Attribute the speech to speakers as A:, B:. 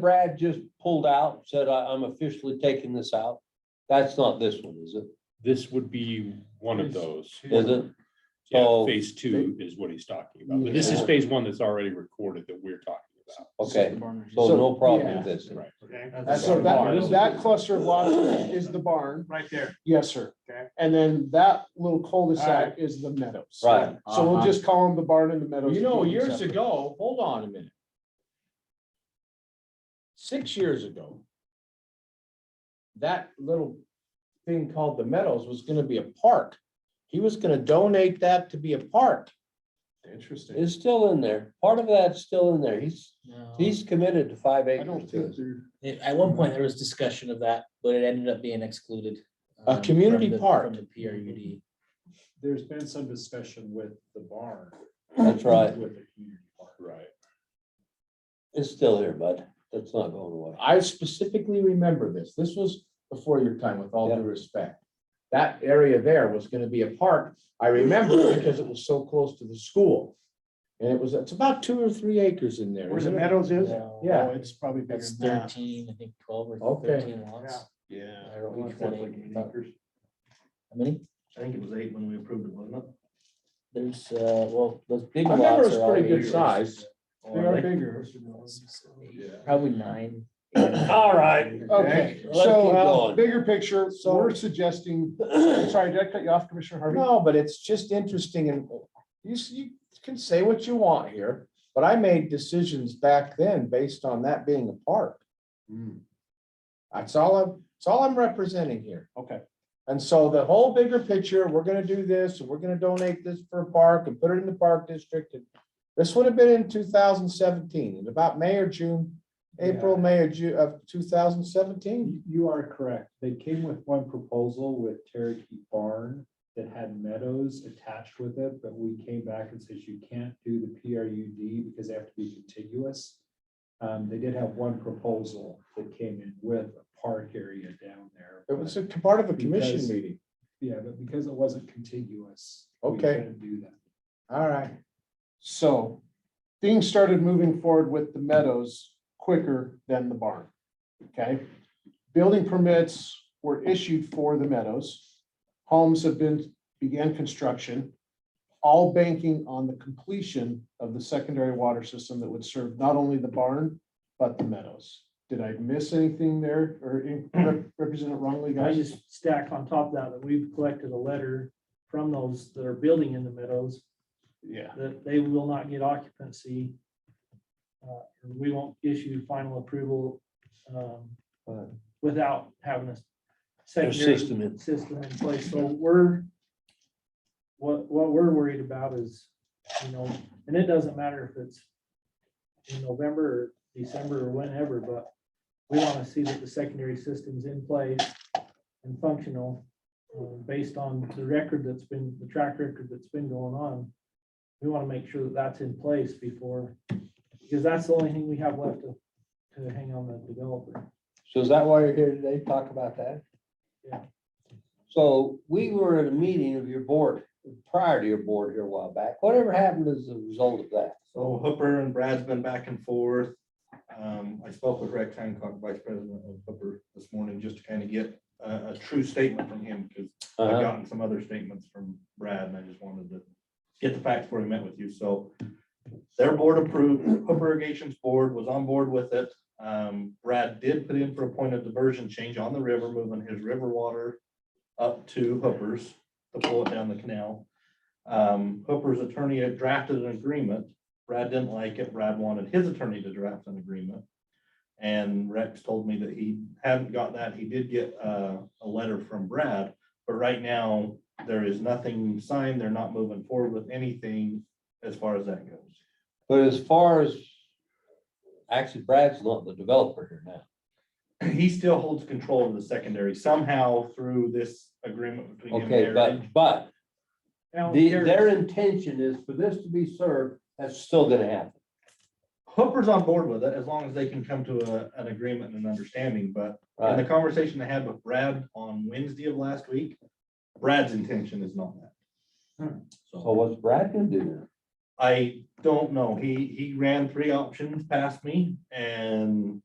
A: Brad just pulled out, said, I, I'm officially taking this out. That's not this one, is it?
B: This would be one of those.
A: Is it?
B: Yeah,
A: So-
B: phase two is what he's talking about, but this is
A: Yeah.
B: phase one that's already recorded that we're talking about.
A: Okay, so
C: So-
A: no problem with this.
B: Right.
D: That's
C: That's
D: our
C: so
D: barn.
C: that, that cluster of lots is the barn,
D: Right there.
C: yes, sir.
D: Okay.
C: And then that little cul-de-sac is the meadows.
A: Right.
C: So we'll just call them the barn and the meadows.
E: You know, years ago, hold on a minute. Six years ago. That little thing called the Meadows was gonna be a park. He was gonna donate that to be a park.
C: Interesting.
A: It's still in there. Part of that's still in there. He's, he's committed to five
C: I
A: acres.
C: don't
A: to
C: think
A: it.
C: they're,
F: It- At one point, there was discussion of that, but it ended up being excluded.
E: A
F: um,
E: community
F: from the-
E: park.
F: From the PRUD.
D: There's been some discussion with the barn.
A: That's right.
D: With the community park.
B: Right.
A: It's still here, bud. That's not going away.
E: I specifically remember this. This was before your time, with all due respect. That area there was gonna be a park. I remember because it was so close to the school. And it was, it's about two or three acres in there.
C: where the
E: isn't it?
C: meadows is?
F: No,
E: Yeah.
C: Oh, It's probably bigger
F: That's
C: than that.
F: thirteen, I think twelve or
E: Okay.
F: thirteen lots.
D: Yeah.
F: I don't know which one it- How many?
D: I think it was eight when we approved it, wasn't it?
F: There's, uh, well, those big
E: I
F: lots.
E: remember it was
F: are all
E: pretty good
F: acres.
E: size.
C: They
F: Or
C: are
F: like
C: bigger.
F: six, eight,
D: Yeah.
F: Probably nine.
B: All right.
A: Let's
C: Okay,
A: keep
C: so uh,
A: going.
C: bigger picture,
E: So-
C: we're suggesting, sorry, did I cut you off, Commissioner Harvey?
E: No, but it's just interesting and you, s- you can say what you want here, but I made decisions back then based on that being a park.
C: Hmm.
E: That's all I'm, that's all I'm representing here.
C: Okay.
E: And so the whole bigger picture, we're gonna do this, and we're gonna donate this for a park and put it in the park district. and This would have been in two thousand seventeen, in about May or June, April, May or June of two thousand seventeen.
D: You- You are correct. They came with one proposal with Cherokee Barn that had meadows attached with it, but we came back and said you can't do the PRUD because they have to be contiguous. Um, they did have one proposal that came in with a park area down there.
E: It was
D: but-
E: a part of a commission
D: Because-
E: meeting.
D: Yeah, but because it wasn't contiguous. we
E: Okay.
D: couldn't Do that.
E: All right.
C: So things started moving forward with the meadows quicker than the barn. Okay? Building permits were issued for the meadows. Homes have been, began construction. All banking on the completion of the secondary water system that would serve not only the barn, but the meadows. Did I miss anything there or in- represent it wrongly,
G: I
C: guys?
G: just stack on top of that, that we've collected a letter from those that are building in the meadows,
C: Yeah.
G: that they will not get occupancy. uh, and We won't issue final approval um,
A: Right.
G: without having a
A: Their
G: secondary
A: system in.
G: system in place. So we're, what, what we're worried about is, you know, and it doesn't matter if it's in November or December or whenever, but we want to see that the secondary system's in place and functional uh, based on the record that's been, the track record that's been going on. We want to make sure that that's in place before, because that's the only thing we have left to, to hang on the developer.
A: So is that why you're here today? Talk about that?
G: Yeah.
A: So we were at a meeting of your board, prior to your board here a while back. Whatever happened as a result of that?
H: So Hooper and Brad's been back and forth. Um, I spoke with Rex Hancock, Vice President of Hooper this morning, just to kind of get a, a true statement from him, because
A: Uh-huh.
H: I've gotten some other statements from Brad, and I just wanted to get the facts before I met with you, so. Their board approved, Hooper Irrigation's board was on board with it. Um, Brad did put in for a point of diversion change on the river, moving his river water up to Hooper's to pull it down the canal. Um, Hooper's attorney had drafted an agreement Brad didn't like it. Brad wanted his attorney to draft an agreement. And Rex told me that he hadn't got that. He did get uh, a letter from Brad, but right now there is nothing signed. They're not moving forward with anything as far as that goes.
A: But as far as, actually Brad's not the developer here now.
H: He still holds control of the secondary somehow through this agreement between him
A: Okay,
H: and Eric.
A: but, but
G: Now,
A: the,
G: there's-
A: their intention is for this to be served, that's still gonna happen.
H: Hooper's on board with it as long as they can come to a- an agreement and an understanding, but in the
A: Right,
H: conversation I had with Brad on Wednesday of last week, Brad's intention is not that.
A: so
H: So
A: what's Brad gonna do now?
H: I don't know. He, he ran three options past me and